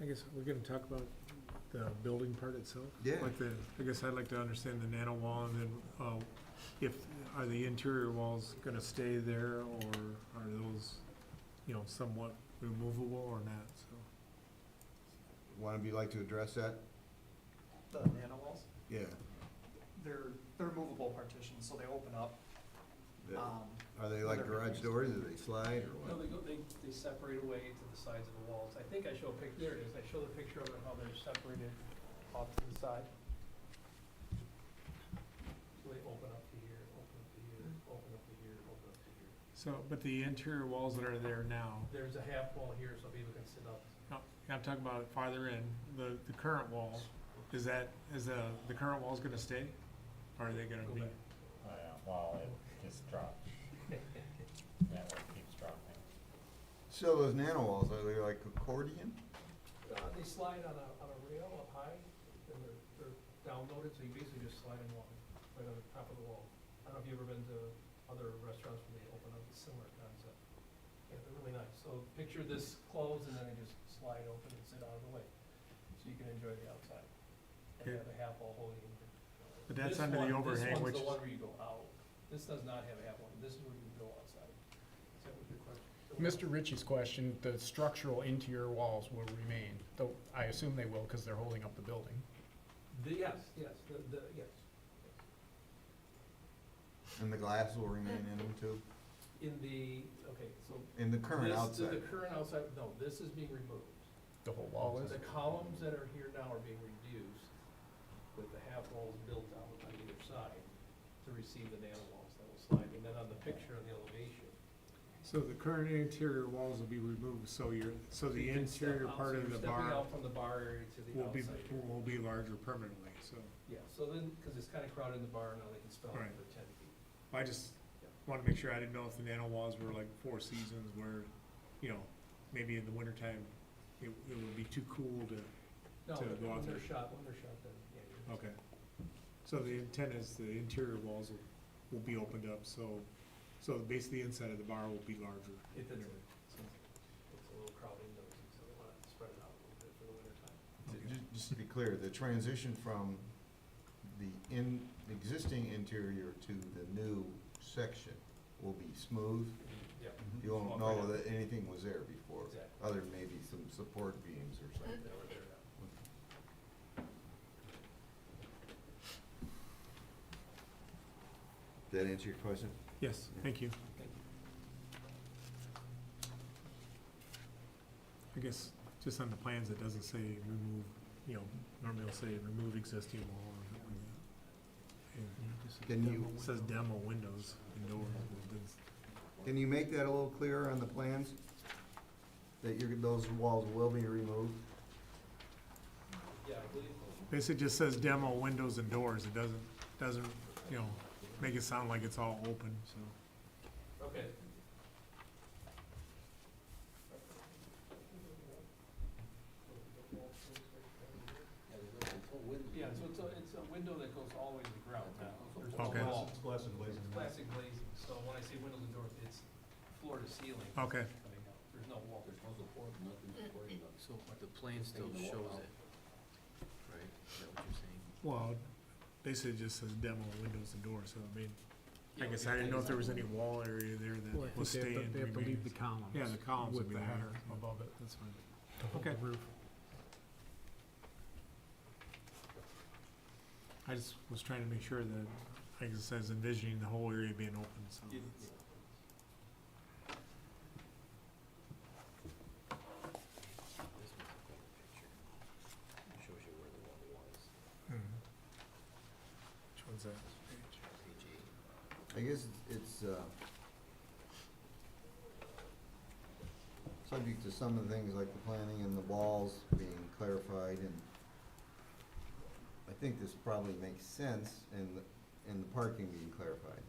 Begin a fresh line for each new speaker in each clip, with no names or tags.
I guess we're gonna talk about the building part itself?
Yeah.
Like the, I guess I'd like to understand the nano wall and then, uh, if, are the interior walls gonna stay there or are those, you know, somewhat removable or not, so?
One of you like to address that?
The nano walls,
Yeah.
they're, they're movable partitions, so they open up.
The-
Um,
Are they like garage doors, do they slide or
No, they
what?
go, they, they separate away to the sides of the walls. I think I show a pic, there it is, I show the picture of it, how they're separated off to the side. So they open up to here, open up to here, open up to here, open up to here.
So, but the interior walls that are there now,
There's a half wall here, so people can sit up.
no, I'm talking about farther in, the, the current wall, is that, is the, the current wall's gonna stay? Or are they gonna
Go
be?
back.
Oh, yeah, well, it just dropped. That one keeps dropping.
So those nano walls, are they like accordion?
Uh, they slide on a, on a rail up high, and they're, they're downloaded, so you basically just slide along right on the top of the wall. I don't know if you've ever been to other restaurants where they open up a similar concept. Yeah, they're really nice. So picture this closed, and then they just slide open and sit out of the way, so you can enjoy the outside. And
Okay.
have a half wall holding.
But that's
This
under the
one-
overhang, which is-
This one's the one where you go out. This does not have a half one. This is where you go outside. Is that what your question?
Mr. Ritchie's question, the structural interior walls will remain, though I assume they will because they're holding up the building.
The- Yes, yes, the, the, yes.
And the glass will remain in them too?
In the, okay, so.
In the current
this-
outside?
The current outside, no, this is being removed.
The whole wall is?
The columns that are here now are being reduced with the half walls built out on either side to receive the nano walls that will slide. And then on the picture of the elevation,
So the current interior walls will be removed, so you're, so
so
the
you can step
interior
out,
part
so
of
you're
the
stepping
bar
out from the bar area to the
will be,
outside. area.
will be larger permanently, so.
Yeah, so then, because it's kind of crowded in the bar now, they can spell
Right.
it for ten feet.
I just wanna make sure, I didn't know if the nano walls were like four seasons where, you know, maybe in the wintertime, it, it would be too cool to,
No,
To go out
when they're
there.
shot, when they're shot, then, yeah. you're-
okay. So the intent is the interior walls will, will be opened up, so, so basically the inside of the bar will be larger.
It does. It's a little crowded in those, so they want to spread it out a little bit for the winter time.
Ju- Just to be clear, the transition from the in, the existing interior to the new section will be smooth.
Mm-hmm.
Yep,
You won't know that anything was there before,
exactly.
other than maybe some support beams or something.
They were there now.
That answer your question?
Yes, thank you.
Thank you.
I guess, just on the plans, it doesn't say remove, you know, normally it'll say remove existing wall or something like that.
Can you-
It Mm-hmm. Says demo windows and doors, but it doesn't-
Can you make that a little clearer on the plans? That your, those walls will be removed?
Yeah, I believe,
basically just says demo windows and doors, it doesn't, doesn't, you know, make it sound like it's all open, so.
okay. Yeah, so it's a, it's a window that goes all the way to the ground now. There's no
Okay.
wall.
glass and
It's classic glazing, so when I say windows and doors, it's floor to ceiling.
Okay,
coming out. There's no wall.
There's no support, nothing to worry about.
So, but the plan still shows it, right? Is that what you're saying?
well, basically just says demo windows and doors, so I mean, I guess I didn't know if there was any wall area there
Well, I
that
think
was
they have
staying.
to- They have to leave the columns.
Yeah, the columns would be
With the
there.
header above it.
That's fine.
to hold
Okay.
the roof.
I just was trying to make sure that, I guess I was envisioning the whole area being open, so.
It-
This was a cool picture. Shows you where the wall was,
Mhm.
Mm-hmm.
Which one's that?
page eight.
I guess it's, uh, subject to some of the things like the planning and the walls being clarified and I think this probably makes sense in the, in the parking being clarified.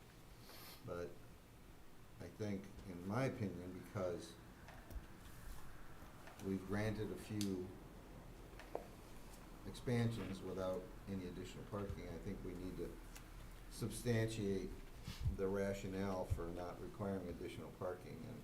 But I think, in my opinion, because we've granted a few expansions without any additional parking, I think we need to substantiate the rationale for not requiring additional parking and